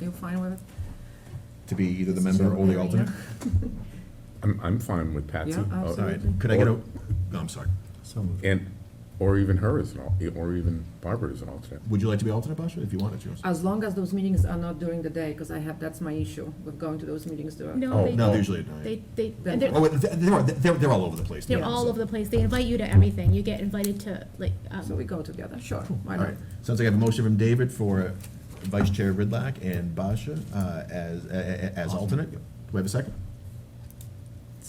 You fine with it? to be either the This is member your or the opinion, alternate? I'm, I'm fine with Patsy. Yeah, uh, All absolutely. right, could I get a, no, I'm sorry. So moved. And, or even her as an, al- or even Barbara as an alternate. Would you like to be alternate, Basha, if you wanted Uh, to? As long as those meetings are not during the day, because I have, that's my issue with going to those meetings during. Oh, No, they, No, usually at night. they, they, Then- and Oh, they're, wait, they're, they're- they're, they're all over the place. they're yeah, all so- over the place. They invite you to everything. You get invited to, like, So um, we go together, sure. why All not? right, sounds like I have a motion from David for Vice Chair Ridlack and Basha uh, as, a- a- as alternate. Do I have a second?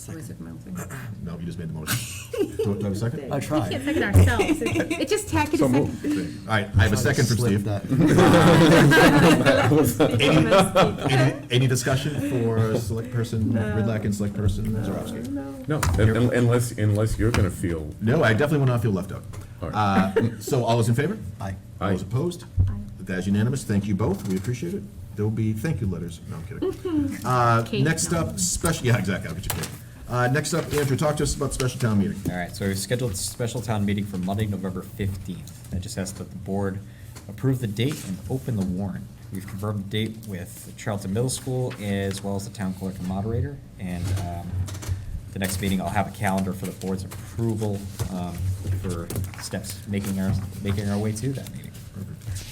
Voice of mouth, yeah. No, you just made the motion. Do do I have a second? I All we tried. can't second ourselves. It's just tacky So to moved. second. right, I have a second from Steve. Any, any discussion for Select Person Ridlack and Select Person Zarowski? No, un- un- unless, unless you're gonna feel, No, I definitely will not feel left out. All Uh, So all those in favor? Aye. All those Aye. opposed? That's unanimous. Thank you both. We appreciate it. There'll be thank you letters. No, I'm kidding. Uh, Cake, Next no. up, special, yeah, exactly. I'll get you cake. Uh, Next up, Andrew, talk to us about special town meeting. All right, so we've scheduled a special town meeting for Monday, November fifteenth. That just asks that the board approve the date and open the warrant. We've confirmed the date with Charlton Middle School as well as the town clerk and moderator. And um, the next meeting, I'll have a calendar for the board's approval um, for steps making our, making our way to that meeting.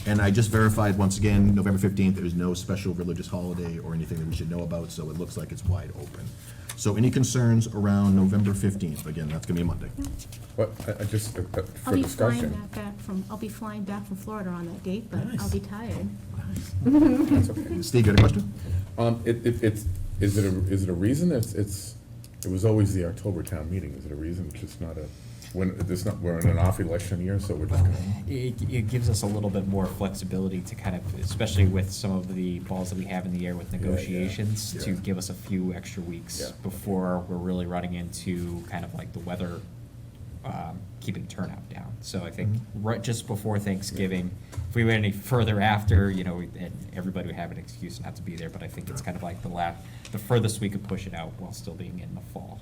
And I just verified once again, November 15th, there is no special religious holiday or anything that we should know about, so it looks like it's wide open. So any concerns around November 15th? Again, that's going to be a Monday. but I, I just, uh, uh, I'll for be flying discussion. back- back from, I'll be flying back from Florida on that date, but I'll Nice. be tired. That's okay. Steve, you had a question? Um, it, it, it's, is it a, is it a reason? It's, it's, it was always the October town meeting. Is it a reason? It's just not a, when, it's not, we're in an off election year, so we're just gonna. It, it gives us a little bit more flexibility to kind of, especially with some of the balls that we have in the air with yeah. negotiations, to Yeah. give us a few extra Yeah. weeks before we're really running into kind of like the weather, um, keeping turnout down. So I think Mm-hmm. right, just before Thanksgiving, if we went any further after, you know, we- and everybody would have an excuse not to be there, but I think it's kind of like the last, the furthest we could push it out while still being in the fall.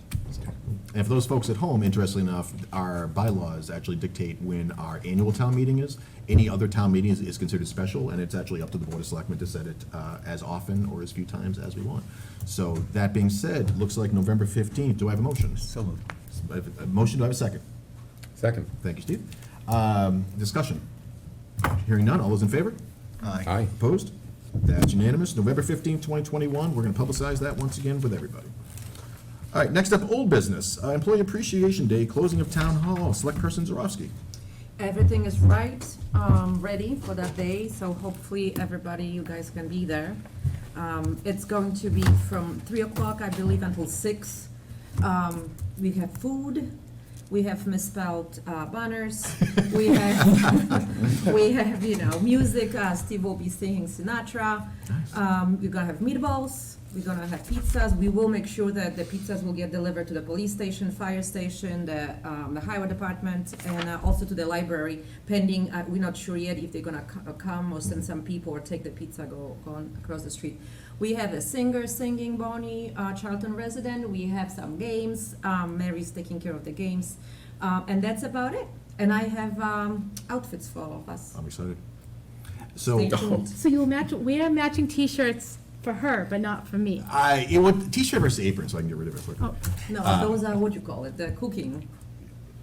Uh, And for those folks at home, interestingly enough, our bylaws actually dictate when our annual town meeting is. Any other town meeting is, is considered special, and it's actually up to the Board of Selectmen to set it uh, as often or as few times as we want. So that being said, looks like November 15th. Do I have a motion? So moved. I have A motion, do I have a second? Second, Thank you, Steve. Um, Discussion. Hearing none, all those in favor? Aye. aye. Opposed? That's unanimous. November 15th, 2021, we're going to publicize that once again with everybody. All right, next up, old business. Uh, Employee Appreciation Day, closing of Town Hall, Select Person Zarowski. Everything is right, um, ready for that day, so hopefully everybody, you guys can be there. Um, it's going to be from three o'clock, I believe, until six. Um, we have food, we have misspelled, uh, banners, we have, we have, you know, music, uh, Steve will be singing Sinatra. Um, we're gonna have meatballs, we're gonna have pizzas, we will make sure that the pizzas will get delivered to the police station, fire station, the, um, the highway department, and uh, also to the library, pending, uh, we're not sure yet if they're gonna co- uh, come or send some people or take the pizza, go, go on across the street. We have a singer singing, Bonnie, uh, Charlton resident, we have some games, um, Mary's taking care of the games, um, and that's about it. And I have, um, outfits for all of us. I'm excited. Stay So, tuned. So you'll match, wear matching t-shirts for her, but not for me. I, it would, t-shirt versus apron, so I can get rid of it quickly. Oh, No, Ah. those are, what you call it, the cooking,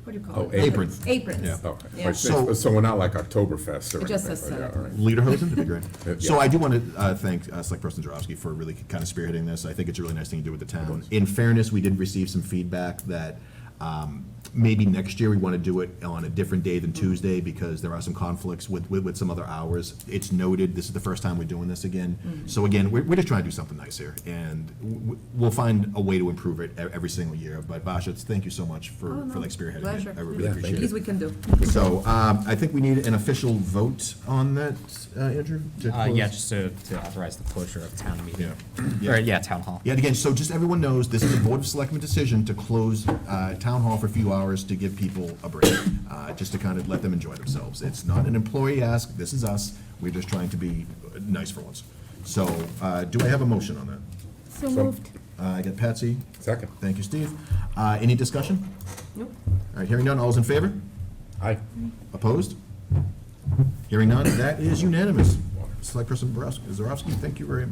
what do you call Oh, it? apron. Aprons. Yeah. Okay. Yeah. Like, So- Oh, So we're not like Oktoberfest or anything. It just says like that, so. all right. Lederhosen, that'd be great. Yeah. Uh, So I do want to thank uh, Select Person Jarowski for really kind of spearheading this. I think it's a really nice thing to do with the town. In fairness, we did receive some feedback that um, maybe next year we want to do it on a different day than Mm-hmm. Tuesday because there are some conflicts with, with with some other hours. It's noted, this is the first time we're doing this again. Mm-hmm. So again, we're, we're just trying to do something nice here, and w- w- we'll find a way to improve it e- every single year. But Basha, it's- thank you so much Oh, for, no, for like spearheading it. pleasure. I really Yeah, appreciate it. Least we can do. So um, I think we need an official vote on that, uh, Andrew? to Uh, yeah, close? just to, to authorize the closure of town meeting. Yeah. Or, yeah, town hall. Yet again, so just everyone knows, this is a Board of Selectmen decision to close uh, Town Hall for a few hours to give people a break, uh, just to kind of let them enjoy themselves. It's not an employee ask, this is us, we're just trying to be nice for once. So uh, do I have a motion on that? So moved. Uh, I got Patsy, Second, thank you, Steve. Uh, Any discussion? Nope. All right, hearing none, all's in favor? aye. Opposed? Hearing none, that is unanimous. Select Person Borowski- Zarowski, thank you very much.